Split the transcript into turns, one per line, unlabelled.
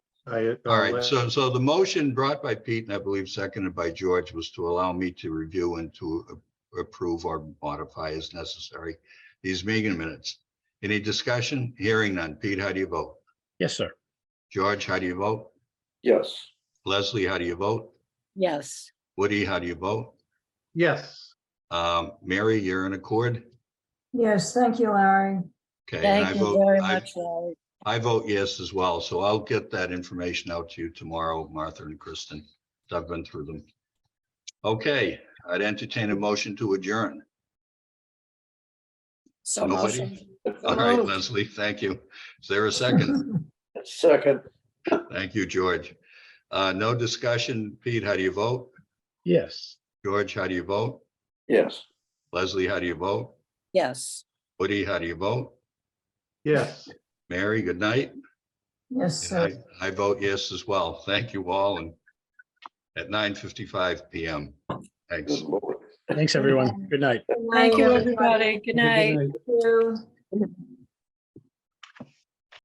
I. uh,
All right, so, so the motion brought by Pete and I believe seconded by George was to allow me to review and to a- approve or modify as necessary these meeting minutes. Any discussion? Hearing none. Pete, how do you vote?
Yes, sir.
George, how do you vote?
yes,
Leslie, how do you vote?
yes,
Woody, how do you vote?
Yes,
Um, Mary, you're in accord?
Yes, thank you, Larry.
Okay. and I
thank you
vote.
very
I-
much, Larry.
I vote yes as well, so I'll get that information out to you tomorrow, Martha and Kristen. I've been through them. Okay, I'd entertain a motion to adjourn.
So
Nobody?
motion,
All right, Leslie, thank you. Is there a second?
second,
Thank you, George. Uh, no discussion. Pete, how do you vote?
Yes.
George, how do you vote?
yes.
Leslie, how do you vote?
yes.
Woody, how do you vote?
yes.
Mary, good night.
Yes,
And
sir.
I, I vote yes as well. Thank you all and at nine fifty-five PM. Thanks.
Good lord.
Thanks, everyone. Good night.
Good
Thank you,
night,
everybody. Good night.
Thank you.